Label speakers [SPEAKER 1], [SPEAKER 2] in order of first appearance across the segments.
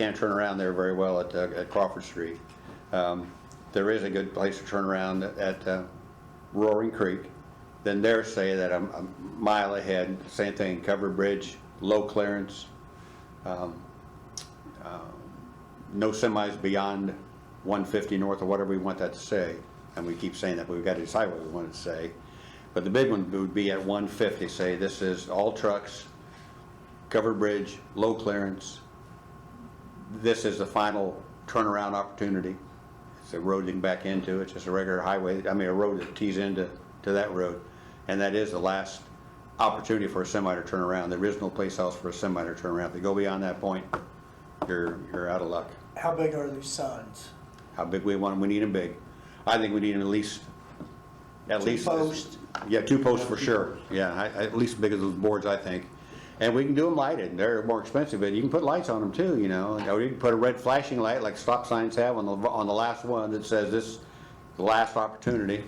[SPEAKER 1] can't turn around there very well at, uh, at Crawford Street. Um, There is a good place to turn around at uh, Roaring Creek. Then they're say that I'm a mile ahead, same thing, covered bridge, low clearance, um, um, no semis beyond 150 north or whatever we want that to say. And we keep saying that, but we've got to decide what we want it to say. But the big one would be at 150, say this is all trucks, covered bridge, low clearance. This is the final turnaround opportunity. It's a road you can back into, it's just a regular highway, I mean, a road that tees into, to that road. And that is the last opportunity for a semi to turn around. There is no place else for a semi to turn around. If they go beyond that point, you're, you're out of luck.
[SPEAKER 2] How big are these signs?
[SPEAKER 1] How big we want them, we need them big. I think we need them at least, at
[SPEAKER 2] Two
[SPEAKER 1] least.
[SPEAKER 2] posts.
[SPEAKER 1] Yeah, two posts for sure, yeah, I- I- at least as big as those boards, I think. And we can do them lighted, they're more expensive, but you can put lights on them too, you know? Or you can put a red flashing light like stop signs have on the, on the last one that says this, is the last opportunity.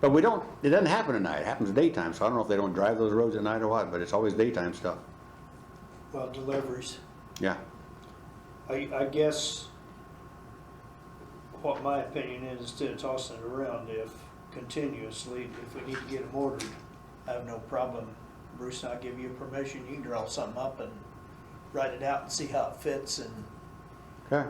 [SPEAKER 1] But we don't, it doesn't happen at night, it happens daytime, so I don't know if they don't drive those roads at night or what, but it's always daytime stuff,
[SPEAKER 2] Well, deliveries.
[SPEAKER 1] yeah.
[SPEAKER 2] I, I guess what my opinion is, instead of tossing it around, if continuously, if we need to get them ordered, I have no problem. Bruce, I'll give you permission, you can draw something up and write it out and see how it fits and
[SPEAKER 1] Okay,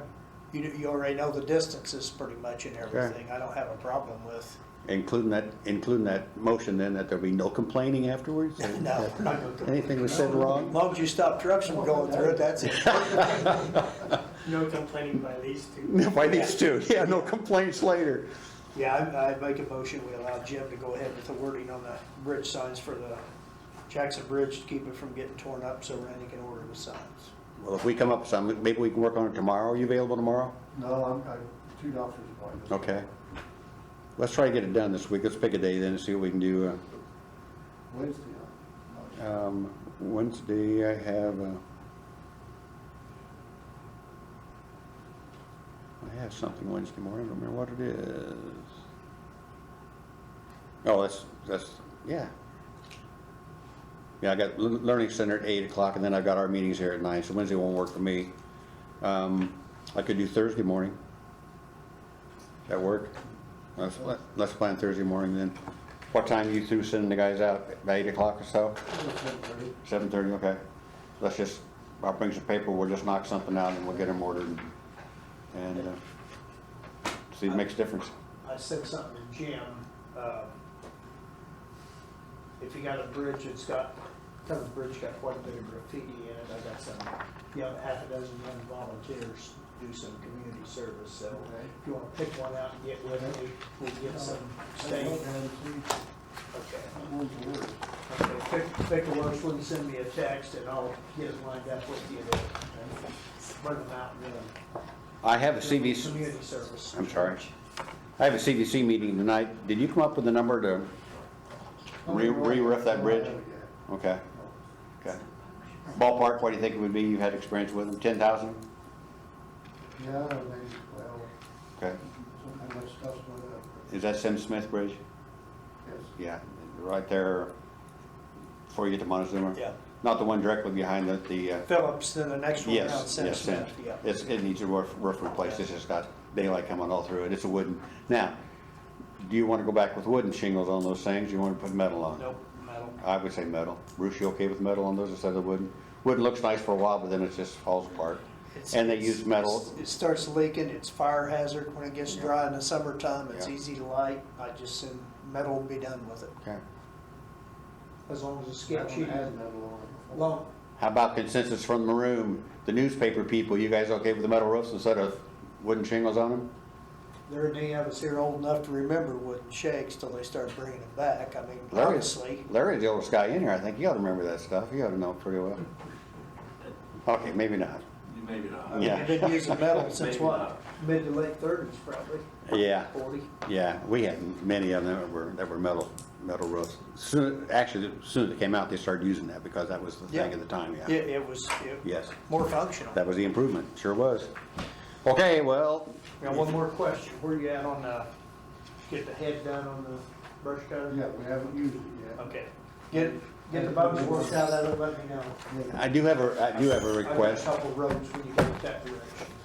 [SPEAKER 2] you, you already know the distances pretty much and everything. I don't have a problem with,
[SPEAKER 1] including that, including that motion then, that there'll be no complaining afterwards?
[SPEAKER 2] no, we're not gonna go-
[SPEAKER 1] Anything we said wrong?
[SPEAKER 2] as long as you stop trucks from going through it, that's it.
[SPEAKER 3] No complaining by these two.
[SPEAKER 1] If I needs to, yeah, no complaints later.
[SPEAKER 2] Yeah, I, I make a motion, we allow Jim to go ahead with the wording on the bridge signs for the Jackson Bridge to keep it from getting torn up so Randy can order the signs.
[SPEAKER 1] Well, if we come up with something, maybe we can work on it tomorrow. Are you available tomorrow?
[SPEAKER 4] No, I'm, I, two doctors appointments.
[SPEAKER 1] Okay. Let's try to get it done this week. Let's pick a day then and see what we can do.
[SPEAKER 4] Wednesday, huh?
[SPEAKER 1] Uh, um, Wednesday, I have, uh, I have something Wednesday morning. I don't remember what it is. Oh, that's, that's, yeah. Yeah, I got Lear- Learning Center at eight o'clock and then I've got our meetings here at nine, so Wednesday won't work for me. Um, I could do Thursday morning. Does that work? Let's, let's plan Thursday morning then. What time you through sending the guys out? About eight o'clock or so?
[SPEAKER 4] Wednesday,
[SPEAKER 1] Seven thirty, okay. Let's just, I'll bring some paper, we'll just knock something out and we'll get them ordered and, uh, see if it makes a difference.
[SPEAKER 2] I said something to Jim, um, if you got a bridge that's got, kind of bridge got quite a bit of graffiti in it, I got some, you know, half a dozen young volunteers do some community service, so
[SPEAKER 4] Okay.
[SPEAKER 2] if you wanna pick one out and get with me, we'll get some
[SPEAKER 4] I
[SPEAKER 2] stain.
[SPEAKER 4] don't have any-
[SPEAKER 2] Okay.
[SPEAKER 4] I'm going to work.
[SPEAKER 2] Okay, pick, pick the worst one, send me a text, and I'll get it lined up with you to bring them out and then.
[SPEAKER 1] I have a CVC,
[SPEAKER 2] Community service.
[SPEAKER 1] I'm sorry. I have a CVC meeting tonight. Did you come up with a number to re, re-roof that bridge? Okay, okay. Ballpark, what do you think it would be? You've had experience with them, ten thousand?
[SPEAKER 4] Yeah, maybe, well,
[SPEAKER 1] Okay.
[SPEAKER 4] something that stuff's going up,
[SPEAKER 1] Is that Sim Smith Bridge?
[SPEAKER 4] yes.
[SPEAKER 1] Yeah, right there before you get to Montezuma.
[SPEAKER 2] Yeah.
[SPEAKER 1] Not the one directly behind the, the, uh,
[SPEAKER 2] Phillips, then the next one down,
[SPEAKER 1] yes,
[SPEAKER 2] Center
[SPEAKER 1] yes, Sim.
[SPEAKER 2] Smith, yeah.
[SPEAKER 1] It's, it needs a roof, roof replaced, it's just got daylight coming all through it, it's a wooden. Now, do you wanna go back with wooden shingles on those things, you wanna put metal on?
[SPEAKER 2] Nope, metal.
[SPEAKER 1] I would say metal. Bruce, you okay with metal on those instead of wooden? Wooden looks nice for a while, but then it just falls apart.
[SPEAKER 2] It's-
[SPEAKER 1] And they
[SPEAKER 2] it's-
[SPEAKER 1] use metal,
[SPEAKER 2] It starts leaking, it's fire hazard when it gets
[SPEAKER 1] Yeah.
[SPEAKER 2] dry in the summertime, it's
[SPEAKER 1] Yeah.
[SPEAKER 2] easy to light, I just send metal and be done with it.
[SPEAKER 1] okay.
[SPEAKER 2] As long as it's skip
[SPEAKER 4] That one
[SPEAKER 2] sheet,
[SPEAKER 4] had metal on it before.
[SPEAKER 2] long,
[SPEAKER 1] How about consensus from the room? The newspaper people, you guys okay with the metal roofs instead of wooden shingles on them?
[SPEAKER 2] There are any of us here old enough to remember wooden shakes till they start bringing them back. I mean,
[SPEAKER 1] Larry's,
[SPEAKER 2] honestly,
[SPEAKER 1] Larry's the oldest guy in here, I think, you ought to remember that stuff, you ought to know pretty well. Okay, maybe not,
[SPEAKER 5] Maybe not.
[SPEAKER 2] I mean,
[SPEAKER 1] Yeah.
[SPEAKER 2] they've been using metal since
[SPEAKER 5] Maybe
[SPEAKER 2] what,
[SPEAKER 5] not.
[SPEAKER 2] mid to late thirties probably,
[SPEAKER 1] yeah,
[SPEAKER 2] forty?
[SPEAKER 1] yeah, we had many of them that were, that were metal, metal roofs. Soon, actually, as soon as it came out, they started using that, because that was the thing
[SPEAKER 2] Yeah.
[SPEAKER 1] at the time, yeah.
[SPEAKER 2] It, it was, it,
[SPEAKER 1] Yes,
[SPEAKER 2] more functional.
[SPEAKER 1] that was the improvement, sure was. Okay, well,
[SPEAKER 2] Now, one more question, where you at on the, get the head done on the brush cutter?
[SPEAKER 4] Yeah, we haven't used it yet.
[SPEAKER 2] Okay, get,
[SPEAKER 4] Get the bugs worked out, of it, let me know.
[SPEAKER 6] Yeah.
[SPEAKER 1] I do have a, I do have a
[SPEAKER 2] I've got
[SPEAKER 1] request.
[SPEAKER 2] a couple roads when you go that direction.